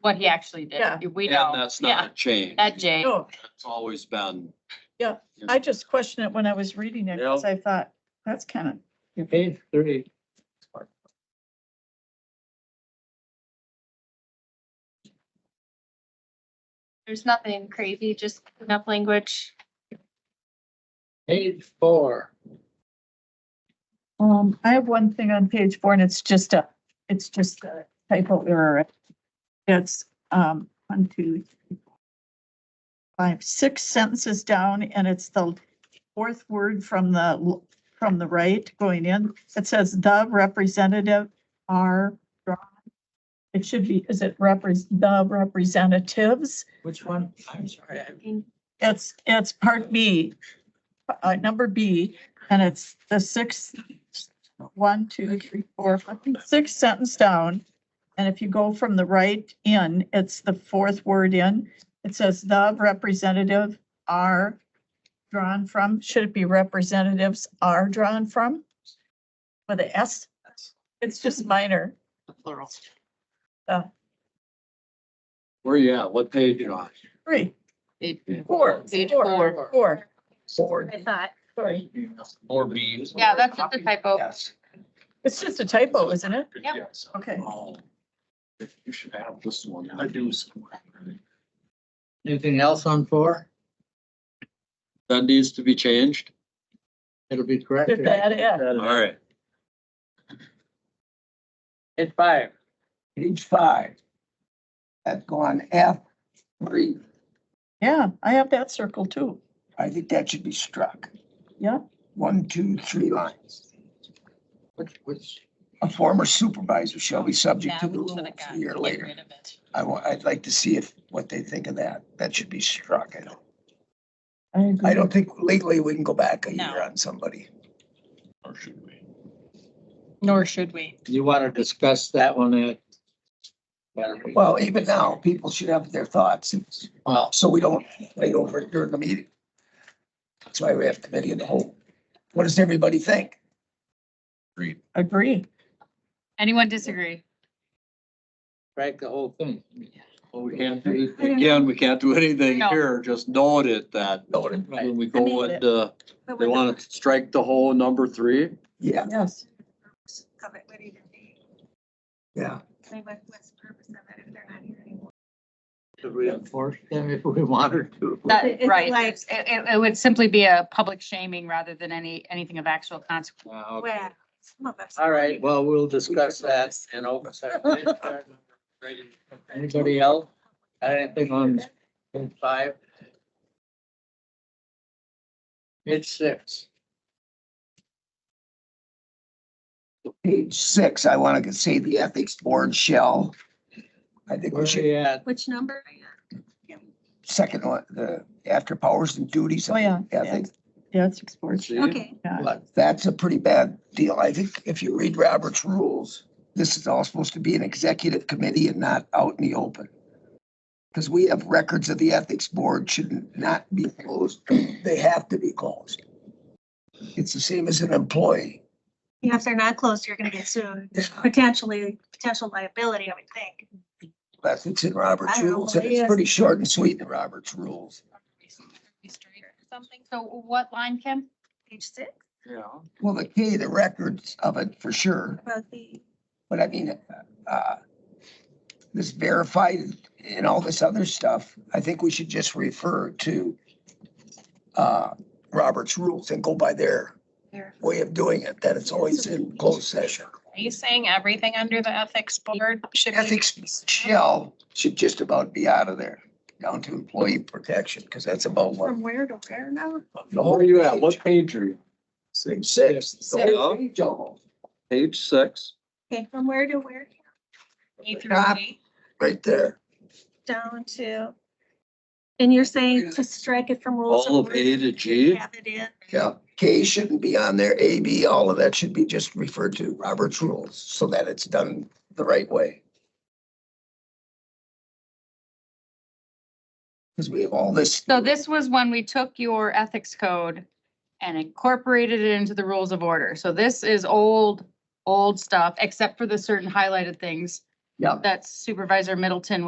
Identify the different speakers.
Speaker 1: what he actually
Speaker 2: Yeah.
Speaker 1: did. We
Speaker 3: And
Speaker 1: know,
Speaker 3: that's not
Speaker 1: yeah,
Speaker 3: a change.
Speaker 1: that Jay,
Speaker 2: No,
Speaker 3: It's always been.
Speaker 2: Yeah, Oh, I just questioned it when I was reading it, because I thought, that's kind of,
Speaker 4: Page three.
Speaker 5: There's nothing crazy, just enough language.
Speaker 4: Page four.
Speaker 2: um, I have one thing on page four, and it's just a, it's just a typo error. It's, um, one, two, three, four, five, six sentences down, and it's the fourth word from the, l- from the right going in. It says the representative are drawn. It should be, is it repres, the representatives?
Speaker 4: Which one? I'm sorry. I-
Speaker 2: It's, it's part B, uh, number B, and it's the sixth, one, two, three, four, five, sixth sentence down. And if you go from the right in, it's the fourth word in. It says the representative are drawn from, should it be representatives are drawn from? With a S? It's just minor. Uh, Plural.
Speaker 3: Where you at? What page you on?
Speaker 2: Three,
Speaker 4: Four.
Speaker 1: Page
Speaker 2: four, four,
Speaker 4: Four.
Speaker 5: I thought,
Speaker 2: sorry.
Speaker 3: Or B.
Speaker 1: yeah, that's just a typo.
Speaker 4: Yes.
Speaker 2: It's just a typo, isn't it?
Speaker 5: Yep.
Speaker 3: Yes.
Speaker 2: Okay.
Speaker 3: Oh, You should have this one. I do. somewhere.
Speaker 4: Anything else on four?
Speaker 3: That needs to be changed.
Speaker 4: It'll be corrected.
Speaker 2: That is.
Speaker 3: All right.
Speaker 4: Page five.
Speaker 6: page five. That's gone F three.
Speaker 2: Yeah, I have that circle too.
Speaker 6: I think that should be struck.
Speaker 2: Yeah.
Speaker 6: One, two, three lines.
Speaker 4: Which, which,
Speaker 6: A former supervisor shall be subject
Speaker 1: Yeah,
Speaker 6: to
Speaker 1: we
Speaker 6: the rule
Speaker 1: should've got-
Speaker 6: a year
Speaker 1: get
Speaker 6: later.
Speaker 1: rid of it.
Speaker 6: I want, I'd like to see if, what they think of that. That should be struck. I don't,
Speaker 2: I agree.
Speaker 6: I
Speaker 4: Mm-hmm.
Speaker 6: don't think legally we can go back a
Speaker 1: No.
Speaker 6: year on somebody.
Speaker 3: Or should we?
Speaker 1: Nor should we.
Speaker 4: you want to discuss that one? uh, better?
Speaker 6: Well, even now, people should have their thoughts.
Speaker 4: Well,
Speaker 6: So we don't wait over it during the meeting. That's why we have committee of the whole. What does everybody think?
Speaker 2: Agree.
Speaker 1: Anyone disagree?
Speaker 4: strike the whole thing.
Speaker 3: Well, we can't do, again, we can't do anything
Speaker 1: No.
Speaker 3: here. Just note it that
Speaker 6: No, it-
Speaker 3: when we
Speaker 2: I
Speaker 3: go
Speaker 2: mean,
Speaker 3: with, uh, they want to strike the whole number three.
Speaker 6: Yeah,
Speaker 2: Yes.
Speaker 7: of it would even be,
Speaker 6: yeah.
Speaker 7: I mean, what- what's the purpose of it if they're not here anymore?
Speaker 4: To reinforce them if we wanted to.
Speaker 7: It-
Speaker 1: That,
Speaker 7: it's
Speaker 1: right,
Speaker 7: like-
Speaker 1: It's- it, it- it would simply be a public shaming rather than any, anything of actual consequence.
Speaker 4: Uh, okay.
Speaker 7: Well, some of us.
Speaker 4: All right, well, we'll discuss that in open session. Anybody else? Got Anything on page five? Page six.
Speaker 6: Page six, I want to say the ethics board shall. I think
Speaker 4: Where
Speaker 6: we
Speaker 4: are
Speaker 6: should,
Speaker 4: we at?
Speaker 7: Which number are you
Speaker 6: second one, the after powers and duties.
Speaker 2: Oh, yeah.
Speaker 6: Ethics,
Speaker 2: Yeah, it's exports.
Speaker 3: See?
Speaker 7: at? Okay,
Speaker 6: but that's a pretty bad deal. I think if you read Robert's rules, this is all supposed to be an executive committee and not out in the open. Because we have records of the ethics board should not be closed. They have to be closed. It's the same as an employee.
Speaker 7: yeah, if they're not closed, you're gonna get sued, There's
Speaker 6: Yeah.
Speaker 7: potentially, potential liability, I would think.
Speaker 6: That's what's in Robert's
Speaker 7: I don't know
Speaker 6: rules.
Speaker 7: what
Speaker 6: And
Speaker 7: it
Speaker 6: it's
Speaker 7: is.
Speaker 6: pretty short and sweet in Robert's rules.
Speaker 1: Something, so what line, Kim?
Speaker 7: Page six,
Speaker 3: Yeah.
Speaker 6: Well, the key, the records of it for sure,
Speaker 7: about the,
Speaker 6: but I mean, uh, this verified and all this other stuff, I think we should just refer to uh, Robert's rules and go by their
Speaker 7: there,
Speaker 6: way of doing it, that it's always in closed session.
Speaker 8: Are you saying everything under the ethics board should be
Speaker 6: Ethics shell should just about be out of there, down to employee protection, because that's about what.
Speaker 7: from where to where now?
Speaker 6: the whole
Speaker 3: Where you at? What
Speaker 6: page-
Speaker 3: page are you?
Speaker 6: Same six. the whole page almost,
Speaker 3: Page six.
Speaker 7: Okay, from where to where,
Speaker 8: A through
Speaker 6: Ah.
Speaker 8: D?
Speaker 6: Right there.
Speaker 7: down to, and you're saying to strike it from rules.
Speaker 3: All of
Speaker 7: order,
Speaker 3: A to G.
Speaker 7: Have it in,
Speaker 6: Yeah, K shouldn't be on there, A, B, all of that should be just referred to Robert's rules so that it's done the right way. Because we have all this.
Speaker 1: So this was when we took your ethics code and incorporated it into the rules of order. So this is old, old stuff, except for the certain highlighted things
Speaker 6: Yeah.
Speaker 1: that Supervisor Middleton